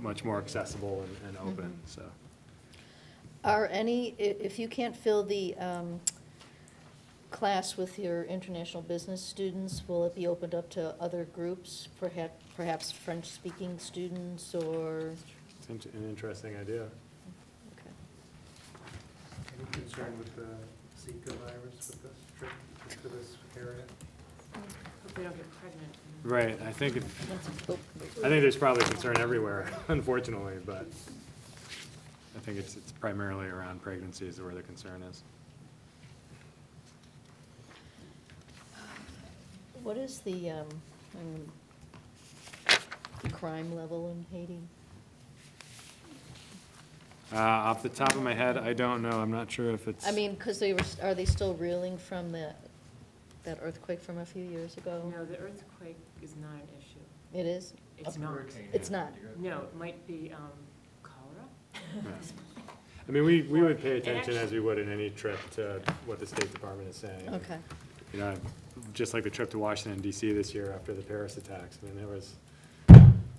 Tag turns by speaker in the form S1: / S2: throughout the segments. S1: much more accessible and, and open,
S2: Mm-hmm.
S1: so.
S2: Are any, i- if you can't fill the um, class with your international business students, will it be opened up to other groups? Perhaps, perhaps French-speaking students or,
S1: Seems an interesting idea.
S2: okay.
S3: Any concern with the Zika virus with this trip to this area?
S4: Hope they don't get pregnant.
S1: Right, I think, if-
S2: Oh,
S1: I think there's probably concern everywhere, unfortunately, but I think it's, it's primarily around pregnancies where the concern is.
S2: What is the, um, um, the crime level in Haiti?
S1: Uh, off the top of my head, I don't know, I'm not sure if it's.
S2: I mean, because they were, s- are they still reeling from that, that earthquake from a few years ago?
S4: No, the earthquake is not an issue.
S2: It is?
S4: It's not.
S2: It's not.
S4: No, it might be um, cholera.
S1: Yeah. I mean, we, we would pay attention as we would in any trip to what the State Department is saying.
S2: Okay.
S1: You know, just like the trip to Washington DC this year after the Paris attacks, I mean, there was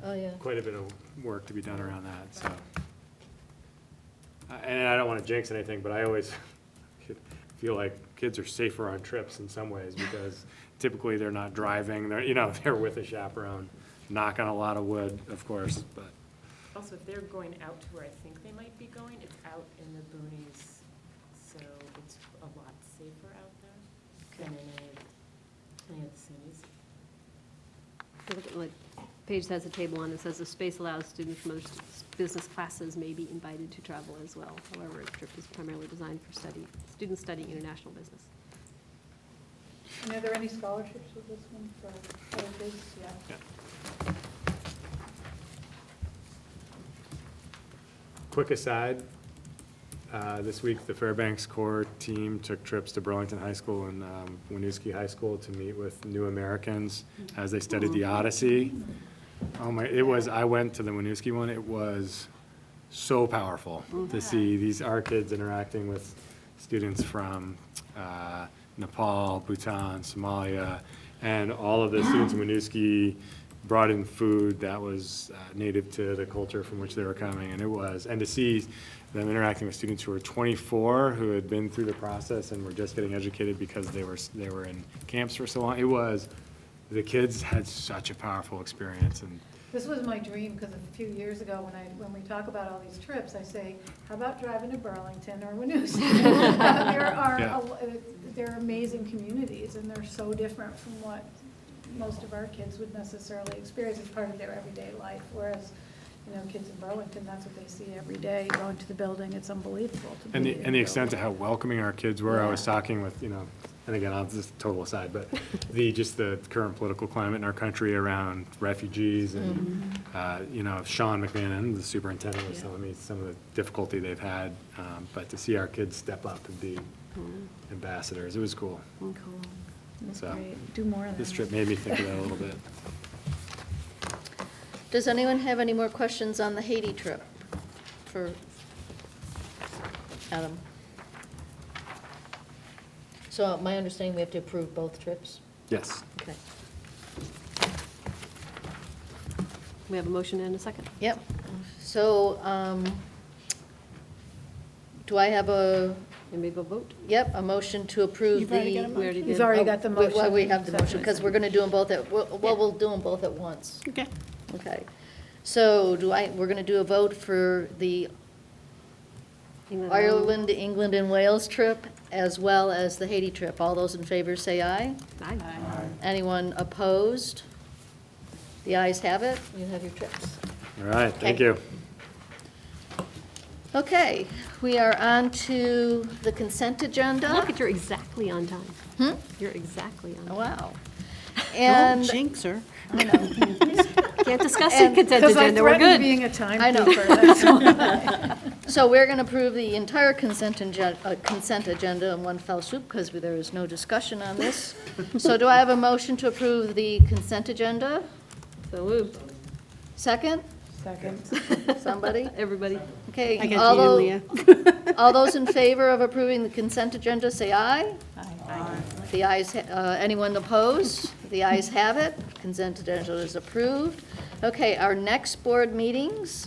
S2: Oh, yeah.
S1: quite a bit of work to be done around that, so. I- And I don't want to jinx anything, but I always feel like kids are safer on trips in some ways because typically they're not driving, they're, you know, they're with a chaperone. Knock on a lot of wood, of course, but,
S4: Also, if they're going out to where I think they might be going, it's out in the boonies, so it's a lot safer out there than in any of- any of the cities.
S5: If you Look at, like, Paige has a table on it says the space allows students from other s- business classes may be invited to travel as well. However, the trip is primarily designed for study, students studying international business.
S6: And are there any scholarships with this one for other kids? Yeah.
S1: yeah. Quick aside, uh, this week, the Fairbanks Core team took trips to Burlington High School and um, Winooski High School to meet with new Americans as they studied the Odyssey. Oh my, it was, I went to the Winooski one, it was so powerful to see these, our kids interacting with students from uh, Nepal, Bhutan, Somalia, and all of the students in Winooski brought in food that was uh, native to the culture from which they were coming, and it was, and to see them interacting with students who were 24, who had been through the process and were just getting educated because they were, s- they were in camps for so long, it was, the kids had such a powerful experience, and
S6: This was my dream, because a few years ago, when I, when we talk about all these trips, I say, how about driving to Burlington or Winooski? There are,
S1: Yeah.
S6: a- uh, they're amazing communities, and they're so different from what most of our kids would necessarily experience as part of their everyday life, whereas, you know, kids in Burlington, that's what they see every day, going to the building, it's unbelievable to be.
S1: And the,
S6: in
S1: and the extent
S6: building.
S1: of how welcoming our kids were, I was
S6: Yeah.
S1: talking with, you know, and again, I'll just total aside, but the, just the current political climate in our country around refugees and, uh, you know, Sean McMahon, the superintendent, was telling me some of the difficulty they've had, um, but to see our kids step up and be
S6: Hmm.
S1: ambassadors, it was cool. So,
S6: Great. Do more of that.
S1: this trip made me think of that a little bit.
S2: Does anyone have any more questions on the Haiti trip for Adam? So my understanding, we have to approve both trips?
S1: Yes.
S2: Okay.
S5: We have a motion and a second.
S2: Yep. So um, do I have a,
S5: And we go vote.
S2: yep, a motion to approve
S6: You've already
S2: the?
S6: got a
S2: Oh,
S5: mo- We already
S6: motion. You've
S5: did. Oh,
S6: already got the
S2: We-
S6: motion.
S2: Well, we have the motion, because we're going to do them both at, well,
S5: Yeah.
S2: well, we'll do them both at once.
S5: Okay.
S2: Okay. So do I, we're going to do a vote for the
S5: Mm-hmm.
S2: Ireland, England, and Wales trip, as well as the Haiti trip. All those in favor say aye.
S5: Aye.
S2: Anyone opposed? The ayes have it. You have your trips.
S1: All right, thank
S2: Okay.
S1: you.
S2: Okay, we are on to the consent agenda.
S5: Look at, you're exactly on time.
S2: Hmm?
S5: You're exactly on time.
S2: Wow. And
S7: her.
S5: Can't discuss the consent
S6: Because I
S5: agenda, we're good.
S6: threatened being a
S2: I know.
S6: timekeeper, that's
S2: so we're going to approve the entire consent agenda, consent agenda in one fell swoop because there is no discussion on this. So do I have a motion to approve the consent agenda?
S5: So moved.
S2: Second?
S7: Second.
S2: Somebody?
S5: Everybody.
S7: I
S2: Okay,
S7: got
S2: all
S7: you,
S2: tho-
S7: Leah.
S2: all those in favor of approving the consent agenda, say aye. The ayes, ha- uh, anyone opposed? The ayes have it. Consent agenda is approved. Okay, our next board meetings